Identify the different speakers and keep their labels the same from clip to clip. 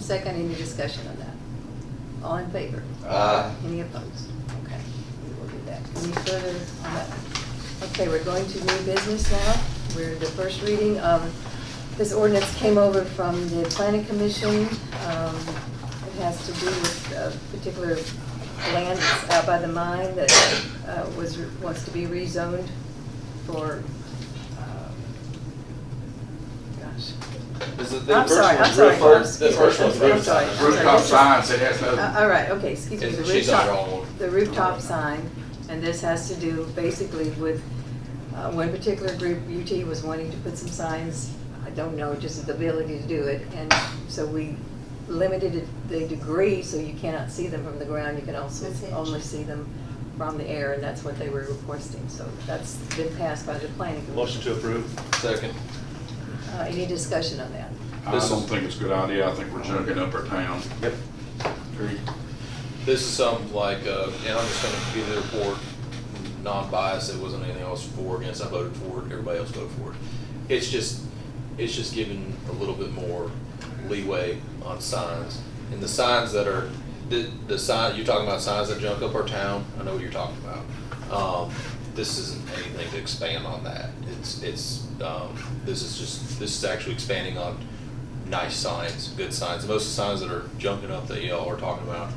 Speaker 1: Second, any discussion on that? All in favor?
Speaker 2: Uh,
Speaker 3: Aye.
Speaker 1: Any opposed? Okay, we will do that. Any further on that? Okay, we're going to new business now. We're the first reading of, this ordinance came over from the planning commission. Um, It has to do with a particular land that's out by the mine that uh, was, wants to be rezoned for, um, gosh,
Speaker 3: Is it
Speaker 1: I'm sorry, I'm
Speaker 3: one's
Speaker 1: sorry.
Speaker 3: roof first?
Speaker 1: I'm
Speaker 3: The first one's
Speaker 1: sorry.
Speaker 3: roof
Speaker 1: I'm sorry.
Speaker 3: sign.
Speaker 1: I'm
Speaker 2: Rooftop
Speaker 1: sorry.
Speaker 2: signs, it has no-
Speaker 1: Uh, All right, okay, excuse me, the
Speaker 3: She's on her
Speaker 1: rooftop,
Speaker 3: own.
Speaker 1: the rooftop sign, and this has to do basically with, uh, one particular group, UT was wanting to put some signs, I don't know, just the ability to do it, and so we limited it- the degree, so you cannot see them from the ground, you can also
Speaker 4: That's it.
Speaker 1: only see them from the air, and that's what they were requesting, so that's been passed by the planning commission.
Speaker 5: Motion to approve.
Speaker 3: Second.
Speaker 1: Uh, any discussion on that?
Speaker 2: I
Speaker 3: This
Speaker 2: don't
Speaker 3: is-
Speaker 2: think it's a good idea. I think we're junking up our town.
Speaker 5: Yep.
Speaker 2: Agreed.
Speaker 3: This is something like, uh, and I'm just gonna give the report, non-biased, it wasn't anything else for, or against, I voted for it, everybody else voted for it. It's just, it's just giving a little bit more leeway on signs. And the signs that are, the, the sign, you're talking about signs that junk up our town, I know what you're talking about. Um, this isn't anything to expand on that, it's, it's, um, this is just, this is actually expanding on nice signs, good signs. Most of the signs that are junking up that y'all are talking about,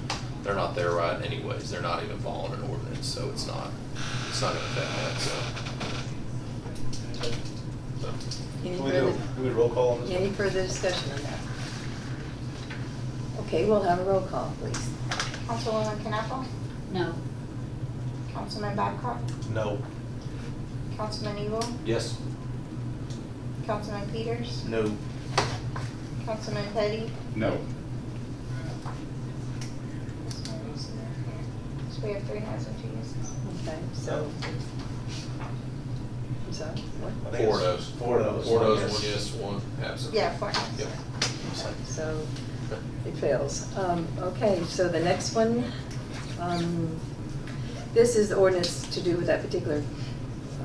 Speaker 3: they're not there right anyways. They're not even following an ordinance, so it's not, it's not gonna affect that, so. so.
Speaker 1: Any
Speaker 5: Can we do,
Speaker 1: further-
Speaker 5: can we roll call on this?
Speaker 1: Any further discussion on that? Okay, we'll have a roll call, please.
Speaker 4: Councilwoman Knappel,
Speaker 6: No.
Speaker 4: Councilman Babcock,
Speaker 5: No.
Speaker 4: Councilman Evil,
Speaker 3: Yes?
Speaker 4: Councilman Peters,
Speaker 5: No.
Speaker 4: Councilman Petty.
Speaker 2: No.
Speaker 4: So we have three noes and two yeses.
Speaker 1: Okay, so. I'm sorry, what?
Speaker 5: I think
Speaker 3: Four
Speaker 5: it's
Speaker 3: no's.
Speaker 5: Four no's.
Speaker 3: Four no's,
Speaker 5: Yes.
Speaker 3: one yes, one absent.
Speaker 4: Yeah, four noes.
Speaker 3: Yep.
Speaker 1: So it fails. Um, Okay, so the next one, um, this is the ordinance to do with that particular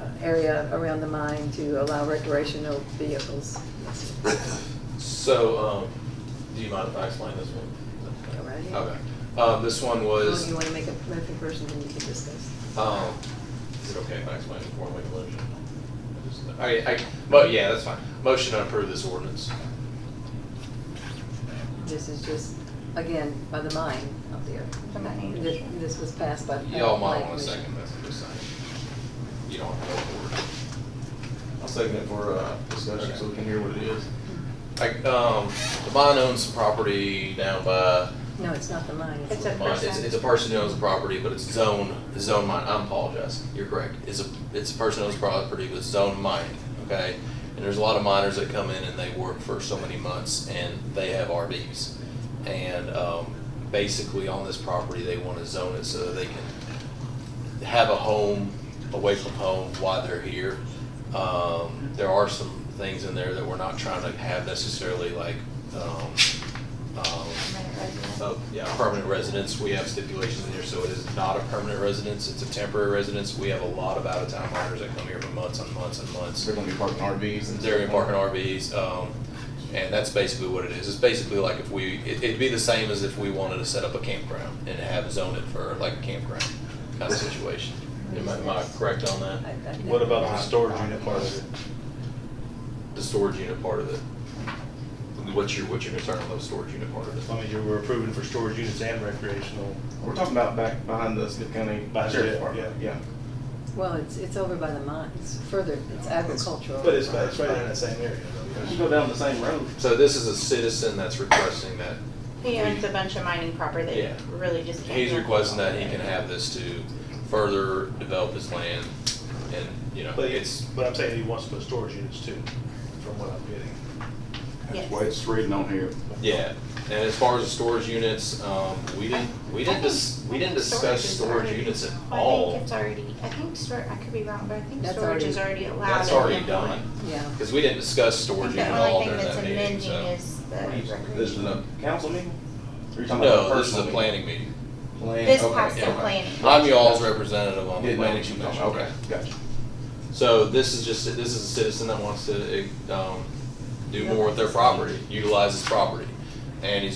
Speaker 1: uh, area around the mine to allow recreational vehicles.
Speaker 3: So, um, do you mind if I explain this one?
Speaker 1: Go right ahead.
Speaker 3: Okay. Um, this one was.
Speaker 1: Well, you want to make a motion first and then you can discuss.
Speaker 3: Um, is it okay if I explain it before I make a motion? I just- I, I, but yeah, that's fine. Motion to approve this ordinance.
Speaker 1: This is just, again, by the mine up there.
Speaker 4: The mine.
Speaker 1: This- This was passed by. the
Speaker 3: Y'all might
Speaker 1: planning
Speaker 3: want to
Speaker 1: commission.
Speaker 3: second this, I'm just saying. You don't have to go forward. I'll second it for, uh,
Speaker 5: Discussion, so we can hear what it is.
Speaker 3: Like, um, the mine owns some property down by,
Speaker 1: No, it's not the mine.
Speaker 4: It's a-
Speaker 3: mine- it's, it's a person who owns the property, but it's zone, zone mine, I apologize, you're correct. It's a, it's a person who owns property with zone mining, okay? And there's a lot of miners that come in and they work for so many months and they have RVs. And, um, basically on this property, they want to zone it so that they can have a home away from home while they're here. Um, there are some things in there that we're not trying to have necessarily like, um, um,
Speaker 4: Permanent resident.
Speaker 3: oh, yeah, permanent residence. We have stipulations in here, so it is not a permanent residence, it's a temporary residence. We have a lot of out-of-town miners that come here for months and months and months.
Speaker 7: They're gonna be parking RVs and.
Speaker 3: They're in parking RVs, um, and that's basically what it is. It's basically like if we, it- it'd be the same as if we wanted to set up a campground and have zoned it for like a campground kind of situation. Am I, am I correct on
Speaker 1: I- I
Speaker 3: that?
Speaker 1: think-
Speaker 5: What about the storage unit part of it?
Speaker 3: The storage unit part of it? What's your, what's your concern about the storage unit part of it?
Speaker 5: I mean, you were approving for storage units and recreational.
Speaker 7: We're talking about back behind the Smith County
Speaker 5: Behind
Speaker 7: Sheriff's
Speaker 5: it,
Speaker 7: Department,
Speaker 5: yeah.
Speaker 7: yeah.
Speaker 1: Well, it's, it's over by the mine, it's further, it's agricultural.
Speaker 5: But it's, it's right in that same area though.
Speaker 7: You
Speaker 5: yes.
Speaker 7: go down the same road.
Speaker 3: So this is a citizen that's requesting that
Speaker 4: He owns a bunch of mining property that
Speaker 3: Yeah.
Speaker 4: you really just can't.
Speaker 3: He's
Speaker 4: do.
Speaker 3: requesting that he can have this to further develop his land and, you know,
Speaker 5: But
Speaker 3: it's,
Speaker 5: it's, but I'm saying he wants to put storage units too, from what I'm getting.
Speaker 4: Yes.
Speaker 2: That's why it's reading on here.
Speaker 3: yeah. And as far as the storage units, um, we didn't, we didn't dis, we didn't discuss
Speaker 4: is
Speaker 3: storage
Speaker 4: already-
Speaker 3: units at
Speaker 4: I
Speaker 3: all.
Speaker 4: think it's already, I think stor, I could be wrong, but I think
Speaker 1: That's
Speaker 4: storage is
Speaker 1: already-
Speaker 4: already allowed.
Speaker 3: That's
Speaker 4: in
Speaker 3: already
Speaker 4: the-
Speaker 3: done,
Speaker 1: Yeah,
Speaker 3: because we didn't discuss
Speaker 4: I think
Speaker 3: storage unit at
Speaker 4: The
Speaker 3: all
Speaker 4: only thing
Speaker 3: during
Speaker 4: that's
Speaker 3: that meeting,
Speaker 4: amending
Speaker 3: so.
Speaker 4: is the
Speaker 7: This is
Speaker 4: recreation.
Speaker 7: a council meeting? Or you talking about
Speaker 3: No, this is a
Speaker 7: personal
Speaker 3: planning meeting.
Speaker 7: meeting? Plan-
Speaker 4: This
Speaker 7: okay,
Speaker 4: has to
Speaker 7: okay.
Speaker 4: planning.
Speaker 3: I'm y'all's representative on the
Speaker 7: Didn't know
Speaker 3: planning
Speaker 7: what you were
Speaker 3: commission.
Speaker 7: talking about. Okay, gotcha.
Speaker 3: So this is just, this is a citizen that wants to, um, do more with their property, utilize his property. And he's